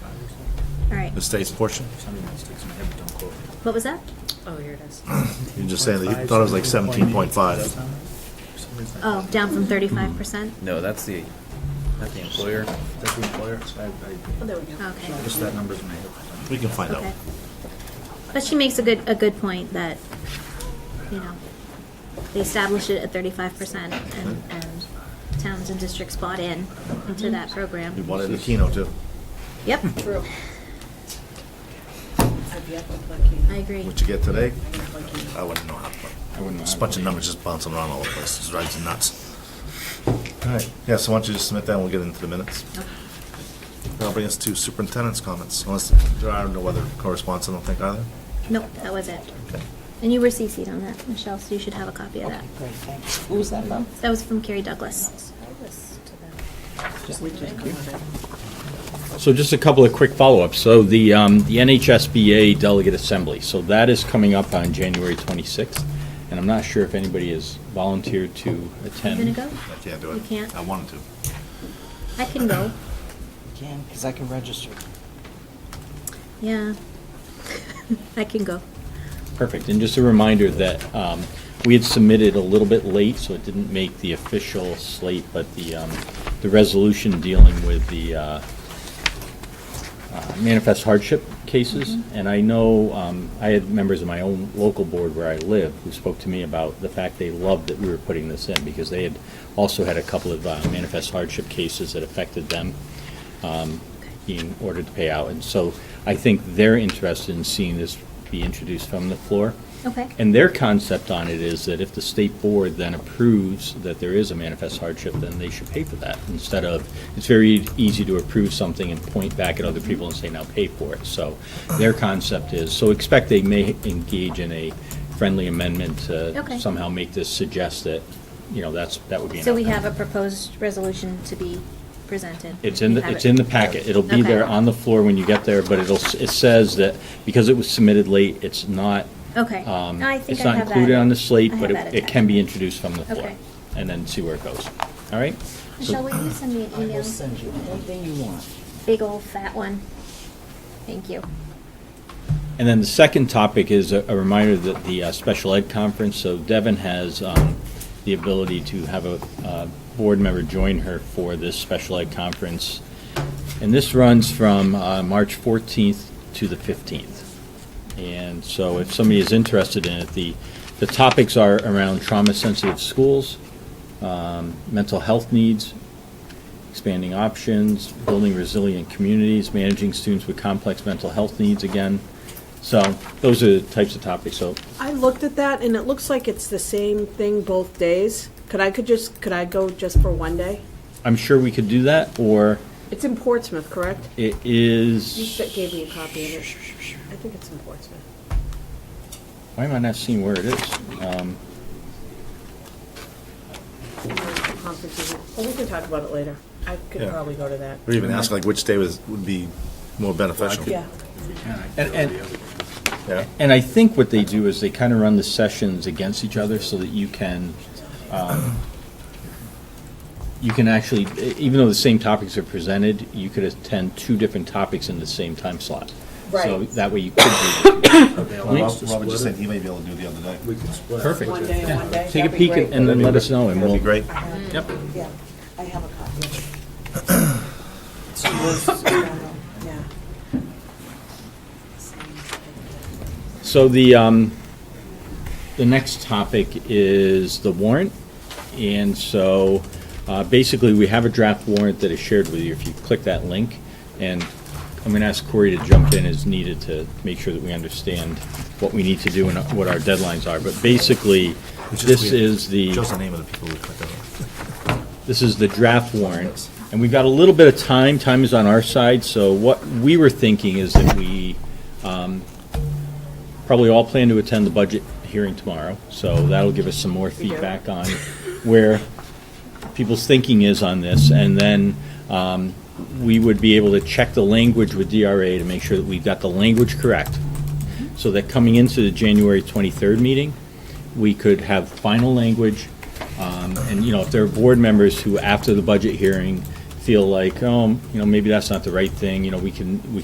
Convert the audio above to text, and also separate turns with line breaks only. Okay.
the state's portion?
Somebody wants to take some head, but don't quote me.
What was that?
Oh, here it is.
You're just saying that you thought it was like seventeen point five.
Oh, down from thirty-five percent?
No, that's the, not the employer.
That's the employer, so I,
Oh,
I,
there we go.
Okay.
just that number's in my head.
We can find out.
Okay. But she makes a good, a good point that, you know, they established it at thirty-five percent and, and towns and districts bought in into that
Mm-hmm.
We
program.
wanted the Keno too.
Yep,
True. I'd be up with Lucky.
I agree.
What you get today,
Lucky.
I wouldn't know how. to play.
I wouldn't know
It's
how to
a bunch of
play.
numbers just bouncing around all over the place. It drives you nuts. All right, yeah, so why don't you just submit that and we'll get into the minutes. That'll bring us to superintendent's comments, unless there are no other correspondence, I don't think either.
Nope, that was it.
Okay.
And you were CC'd on that, Michelle, so you should have a copy of that.
Great, thanks. Who was that from?
That was from Carrie Douglas.
So just a couple of quick follow-ups. So the, um, the NHSBA Delegate Assembly, so that is coming up on January 26th, and I'm not sure if anybody has volunteered to
You
attend.
gonna go?
I can't do it.
You can't?
I wanted to.
I can go,
Again, because I can register.
yeah. I can go.
Perfect. And just a reminder that um, we had submitted a little bit late, so it didn't make the official slate, but the, um, the resolution dealing with the uh, uh, manifest hardship cases. And I know, um, I had members of my own local board where I live who spoke to me about the fact they loved that we were putting this in because they had also had a couple of uh, manifest hardship cases that affected them um, being ordered to pay out. And so I think they're interested in seeing this be introduced from the floor.
Okay.
And their concept on it is that if the state board then approves that there is a manifest hardship, then they should pay for that instead of, it's very easy to approve something and point back at other people and say, now pay for it. So their concept is, so expect they may engage in a friendly amendment
Okay.
to somehow make this suggest that, you know, that's, that would be an
So we
outcome.
have a proposed resolution to be presented.
It's in,
You
the
have
it's
it.
in the packet. It'll be
Okay.
there on the floor when you get there, but it'll, s- it says that because it was submitted late, it's not,
Okay.
um,
I think
it's
I
not
have that.
included on the slate,
I
but
have that
it it can be
attached.
introduced from the floor.
Okay.
And then see where it goes. All right?
Michelle,
So-
will you send me an
I will
email?
send you anything you want.
Big old fat one. Thank you.
And then the second topic is a a reminder that the uh, special ed conference, so Devin has um, the ability to have a uh, board member join her for this special ed conference. And this runs from uh, March 14th to the 15th. And so if somebody is interested in it, the, the topics are around trauma-sensitive schools, um, mental health needs, expanding options, building resilient communities, managing students with complex mental health needs again. So those are the types of topics. So
I looked at that, and it looks like it's the same thing both days. Could I could just, could I go just for one day?
I'm sure we could do that, or
It's in Portsmouth, correct?
it
You
is,
s- gave me a copy of it. I think it's in Portsmouth.
why am I not seeing where it is? Um,
Or the conference is in- Well, we can talk about it later. I could
Yeah.
probably go to that.
Or even ask like which day was, would be more beneficial.
Yeah.
If we can, I can go
And-
to
and-
the other.
Yeah.
And I think what they do is they kind of run the sessions against each other so that you can, um, you can actually, e- even though the same topics are presented, you could attend two different topics in the same time slot. So
Right.
that way you could do,
Rob- Robert just said he may be able to do the other day.
We can split.
perfect.
One day and one day.
Take a
That'd be
peek and
great.
and then let us know and
That'd
we'll.
be great.
I have-
Yep.
Yeah, I have a copy of it.
So we'll-
Yeah.
So the, um, the next topic is the warrant. And so, uh, basically, we have a draft warrant that is shared with you. If you click that link, and I'm gonna ask Corey to jump in as needed to make sure that we understand what we need to do and what our deadlines are. But basically,
Which
this
weird.
is the.
Shows the name of the people who clicked on it.
This is the draft warrant, and we've got a little bit of time, time is on our side, so what we were thinking is that we um, probably all plan to attend the budget hearing tomorrow, so that'll give us some more
do.
feedback on where people's thinking is on this, and then um, we would be able to check the language with DRA to make sure that we've got the language correct, so that coming into the January 23rd meeting, we could have final language, um, and, you know, if there are board members who, after the budget hearing, feel like, oh, you know, maybe that's not the right thing, you know, we can, we